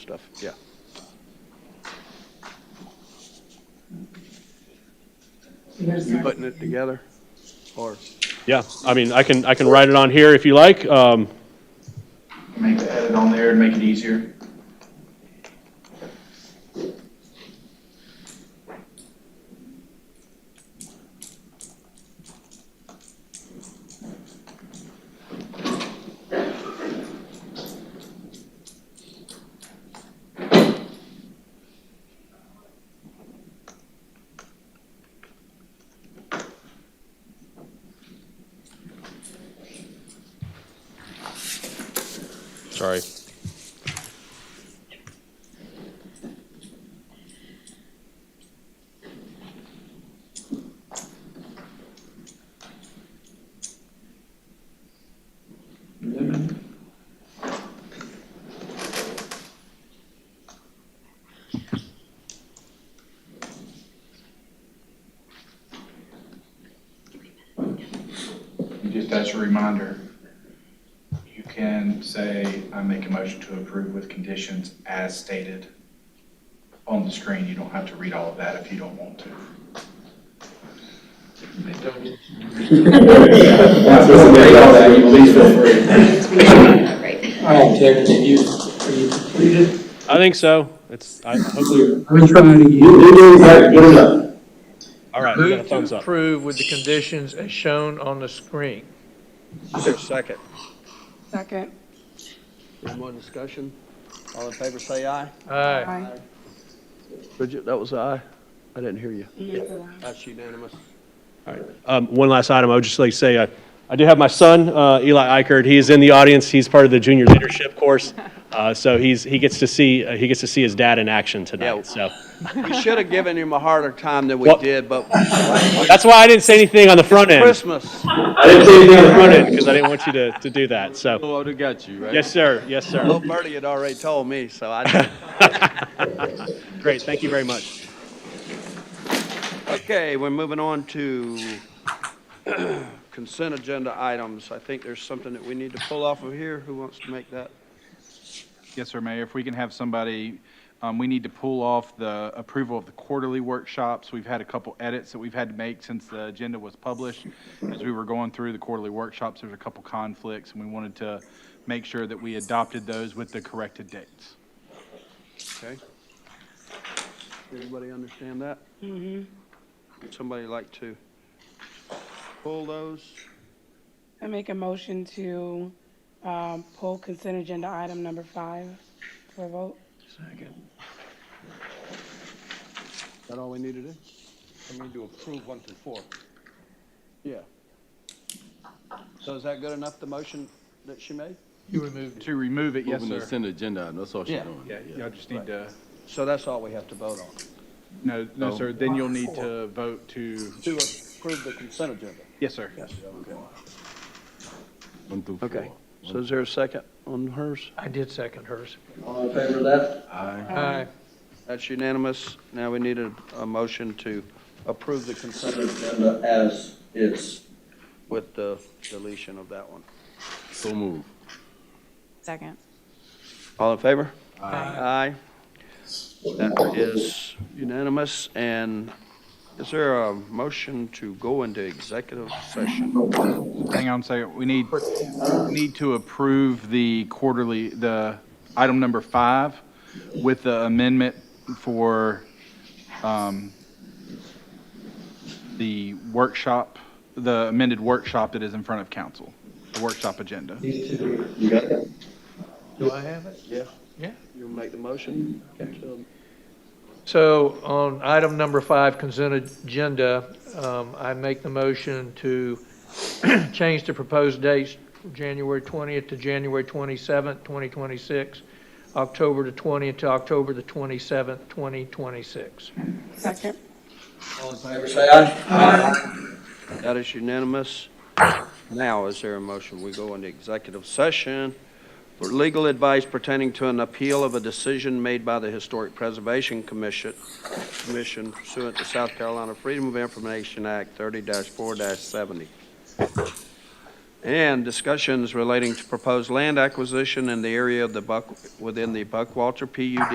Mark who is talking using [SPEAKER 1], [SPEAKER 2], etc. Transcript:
[SPEAKER 1] stuff, yeah.
[SPEAKER 2] Here's
[SPEAKER 1] You
[SPEAKER 2] my-
[SPEAKER 1] putting it together, or?
[SPEAKER 3] Yeah, I mean, I can, I can write it on here if you like. Um,
[SPEAKER 4] Make the edit on there and make it easier.
[SPEAKER 3] sorry.
[SPEAKER 4] Just as a reminder, you can say, I make a motion to approve with conditions as stated on the screen. You don't have to read all of that if you don't want to.
[SPEAKER 2] Right.
[SPEAKER 5] All right, Terry, have you, are you completed?
[SPEAKER 3] I think so. It's, I hopefully,
[SPEAKER 5] I'm trying to.
[SPEAKER 3] all right, we got a
[SPEAKER 6] Move
[SPEAKER 3] thumbs
[SPEAKER 6] to
[SPEAKER 3] up.
[SPEAKER 6] approve with the conditions as shown on the screen.
[SPEAKER 1] Is there a second?
[SPEAKER 2] Second.
[SPEAKER 1] Any more discussion? All in favor, say aye.
[SPEAKER 6] Aye.
[SPEAKER 2] Aye.
[SPEAKER 1] Bridget, that was aye. I didn't hear you.
[SPEAKER 2] Yes.
[SPEAKER 1] That's unanimous.
[SPEAKER 3] Um, one last item, I would just like to say, I, I do have my son, uh, Eli Eichert. He is in the audience. He's part of the junior leadership course. Uh, so he's, he gets to see, uh, he gets to see his dad in action
[SPEAKER 1] Yeah.
[SPEAKER 3] tonight. So
[SPEAKER 1] We should have given him a harder time than we
[SPEAKER 3] Well-
[SPEAKER 1] did, but
[SPEAKER 3] that's why I didn't say anything on the front end.
[SPEAKER 1] Christmas.
[SPEAKER 3] I didn't say anything on the front end because I didn't want you to, to do that. So,
[SPEAKER 7] Well, I got you, right?
[SPEAKER 3] yes, sir. Yes,
[SPEAKER 1] Little
[SPEAKER 3] sir.
[SPEAKER 1] Birdie had already told me, so I,
[SPEAKER 3] Great. Thank you very much.
[SPEAKER 1] okay, we're moving on to consent agenda items. I think there's something that we need to pull off of here. Who wants to make that?
[SPEAKER 4] Yes, sir, Mayor. If we can have somebody, um, we need to pull off the approval of the quarterly workshops. We've had a couple edits that we've had to make since the agenda was published. As we were going through the quarterly workshops, there's a couple conflicts, and we wanted to make sure that we adopted those with the corrected dates.
[SPEAKER 1] Okay. Everybody understand that? Mm-hmm. Would somebody like to pull those?
[SPEAKER 2] I make a motion to um, pull consent agenda item number five for a vote.
[SPEAKER 1] Is that all we need to do?
[SPEAKER 7] I need to approve one through four.
[SPEAKER 1] Yeah. So is that good enough, the motion that she made?
[SPEAKER 6] You removed.
[SPEAKER 4] To remove it, yes,
[SPEAKER 7] Moving the
[SPEAKER 4] sir.
[SPEAKER 7] consent agenda, item, that's all she's
[SPEAKER 1] Yeah.
[SPEAKER 7] doing.
[SPEAKER 4] Yeah, y'all just need to,
[SPEAKER 1] So that's all we have to vote on?
[SPEAKER 4] no, no,
[SPEAKER 7] No.
[SPEAKER 4] sir, then you'll need to vote to,
[SPEAKER 1] To approve the consent agenda?
[SPEAKER 4] yes, sir.
[SPEAKER 1] Yes. Okay.
[SPEAKER 7] One through four.
[SPEAKER 1] Okay, so is there a second on hers?
[SPEAKER 6] I did second hers.
[SPEAKER 5] All in favor of that?
[SPEAKER 7] Aye.
[SPEAKER 6] Aye.
[SPEAKER 1] That's unanimous. Now we need a, a motion to approve the consent
[SPEAKER 5] Agenda as is.
[SPEAKER 1] with the deletion of that one.
[SPEAKER 7] So move.
[SPEAKER 8] Second.
[SPEAKER 1] All in favor? Aye. That is unanimous, and is there a motion to go into executive session?
[SPEAKER 4] Hang on a second, we need, we need to approve the quarterly, the item number five with the amendment for um, the workshop, the amended workshop that is in front of council, the workshop agenda.
[SPEAKER 5] These two.
[SPEAKER 1] You got it?
[SPEAKER 6] Do I have it?
[SPEAKER 1] Yeah.
[SPEAKER 6] Yeah.
[SPEAKER 1] You make the motion? Okay.
[SPEAKER 6] So on item number five, consent agenda, um, I make the motion to change the proposed dates, from January 20th to January 27th, 2026, October the 20th to October the 27th, 2026.
[SPEAKER 2] Second.
[SPEAKER 5] All in favor, say aye.
[SPEAKER 1] That is unanimous. Now, is there a motion? We go into executive session for legal advice pertaining to an appeal of a decision made by the Historic Preservation Commission Commission pursuant to South Carolina Freedom of Information Act 30-4-70. and discussions relating to proposed land acquisition in the area of the Buck, within the Buckwalter PUD